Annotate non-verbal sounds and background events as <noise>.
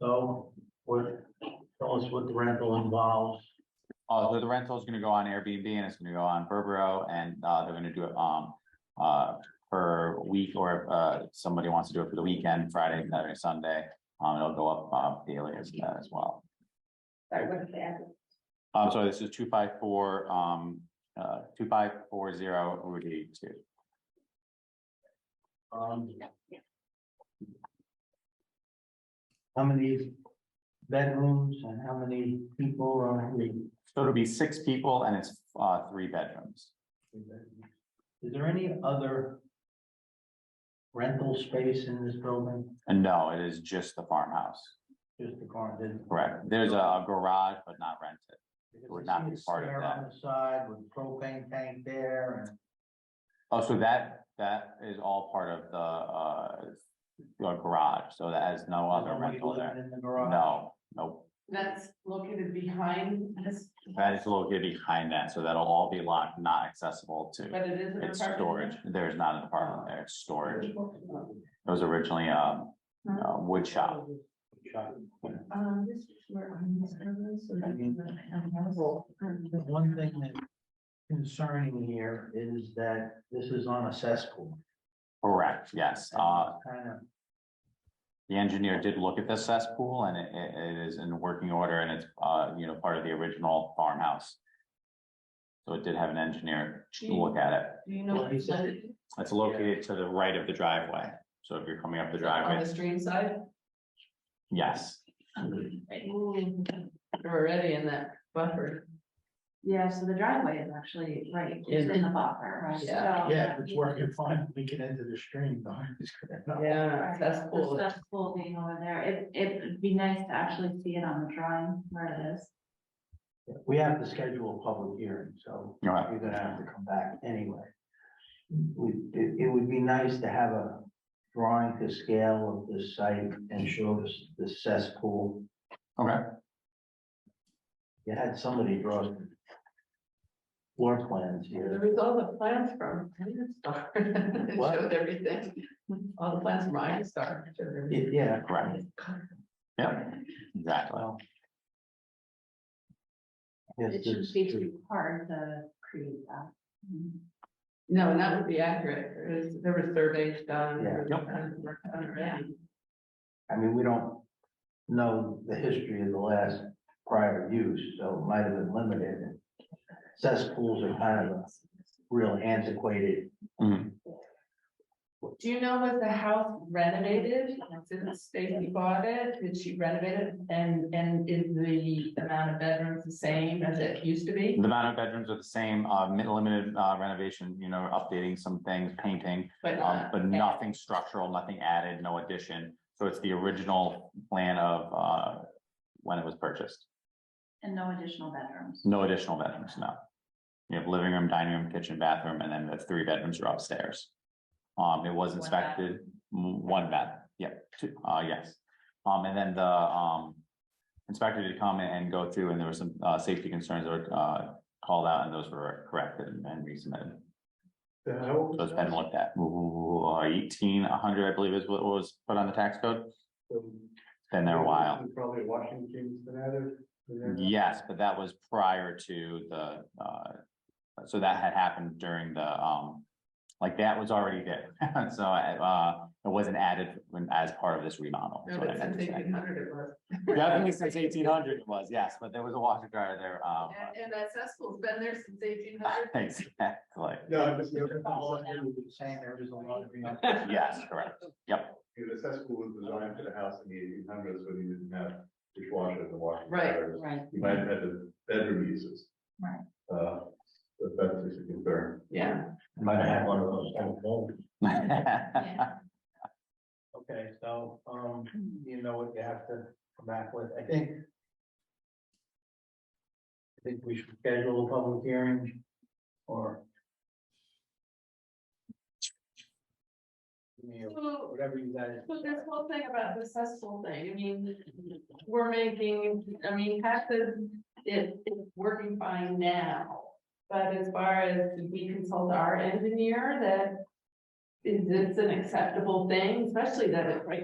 So what, tell us what the rental involves. Uh, the- the rental is gonna go on Airbnb and it's gonna go on Verbo and, uh, they're gonna do it, um, uh, per week or, uh, if somebody wants to do it for the weekend, Friday, Saturday, Sunday. Um, it'll go up, uh, daily as, as well. Sorry, what is the address? Um, so this is two five four, um, uh, two five four zero Route eighty-two. Um. How many bedrooms and how many people are in So it'll be six people and it's, uh, three bedrooms. the? bedrooms? Is there any other rental space in this building? And no, it is just the farmhouse, Just the car, there's. correct? There's a garage, but not rented. would not be part of Stair On the side with propane tank there and. Oh, so that, that is all part of the, uh, the garage, so that has no other Nobody rental there. living In the garage. No, no, That's located behind this, that is located behind that, so that'll all be locked, not accessible to. but it is an It's storage, apartment. there's not an apartment there, it's storage. It was originally, um, a wood shop. Shop. Um, this is where I'm. I mean, The one thing that concerning here is that this is on a cesspool. Correct, yes, uh, Kind of, The engineer did look at the cesspool and it, it- it is in working order and it's, uh, you know, part of the original farmhouse. So it did have an engineer Hmm. to look at it. Do you know? What is On It's located to the right of the driveway. So if you're coming up the the driveway, stream side? yes, We're already in that buffer. Yeah, so the driveway is actually right Is- in the buffer, so. Yeah. yeah, if it's working fine, we can enter the stream, though. It's good enough. Yeah, Right, that's The cool. stuff's cool being over there. It, it'd be nice to actually see it on the drawing where it is. We have to schedule a public hearing, so you're right. you're gonna have to come back anyway. We, it, it would be nice to have a drawing to scale of the site and show us the cesspool. Okay, You had somebody draw floor plans There here. was all the plans from Star. <laughs> It What? showed everything. All the plans from Iron Star. showed everything. Yeah, correct. Yep, exactly. well. Yes, It shouldn't it's be true. too hard to create that. Mm-hmm. No, and that would be accurate. There was, there were surveys done. there was Yeah. all kinds of work done already. I mean, we don't know the history of the last prior use, so it might have been limited. And Cesspools are kind of a real antiquated, Mhm. Do you know, was the house renovated since Stacy bought it? Did she renovate it? And, and is the amount of bedrooms the same as it used to be? The amount of bedrooms are the same, uh, mi- limited uh, renovation, you know, updating some things, painting, But um, not. but nothing structural, nothing added, no addition. So it's the original plan of, uh, when it was purchased. And no additional bedrooms. No additional bedrooms, no. You have living room, dining room, kitchen, bathroom, and then the three bedrooms are upstairs. Um, it was One bath. inspected, m- one bed, yeah, two, uh, yes. Um, and then the, um, inspector did come and go through, and there were some, uh, safety concerns that were, uh, called out, and those were corrected and and resubmitted. So it's been looked at, Ooh, eighteen, a hundred, I believe is what was put on the tax code, been there a while. Probably Washington's been at it. Yes, but that was prior to the, uh, so that had happened during the, um, like that was already there. <laughs> So, uh, it wasn't added when, as part of this remodel. is No, what I but meant since to say. eighteen hundred it was. Definitely since eighteen hundred it was, yes, but there was a washer dryer there, um, And, and that cesspool's been there since eighteen hundred. <laughs> exactly. No, I'm just, Saying joking. there is a lot of. Yes, correct. Yep, the cesspool was designed for the house in the eighteen hundreds when you didn't have dishwashers and washing. Right. powders. Right. Mm. You might have had the bedroom uses. Right. Uh, but that's a concern. Yeah, Might have one of those. old bulbs. <laughs> Yeah. Okay, so, um, you know what you have to come back with, I think. I think we should schedule a public hearing or. Give me a- so, Whatever you guys. so this whole thing about the cesspool thing, I mean, we're making, I mean, half the, it, it's working fine now. But as far as did we consult our engineer that is this an acceptable thing, especially that it's right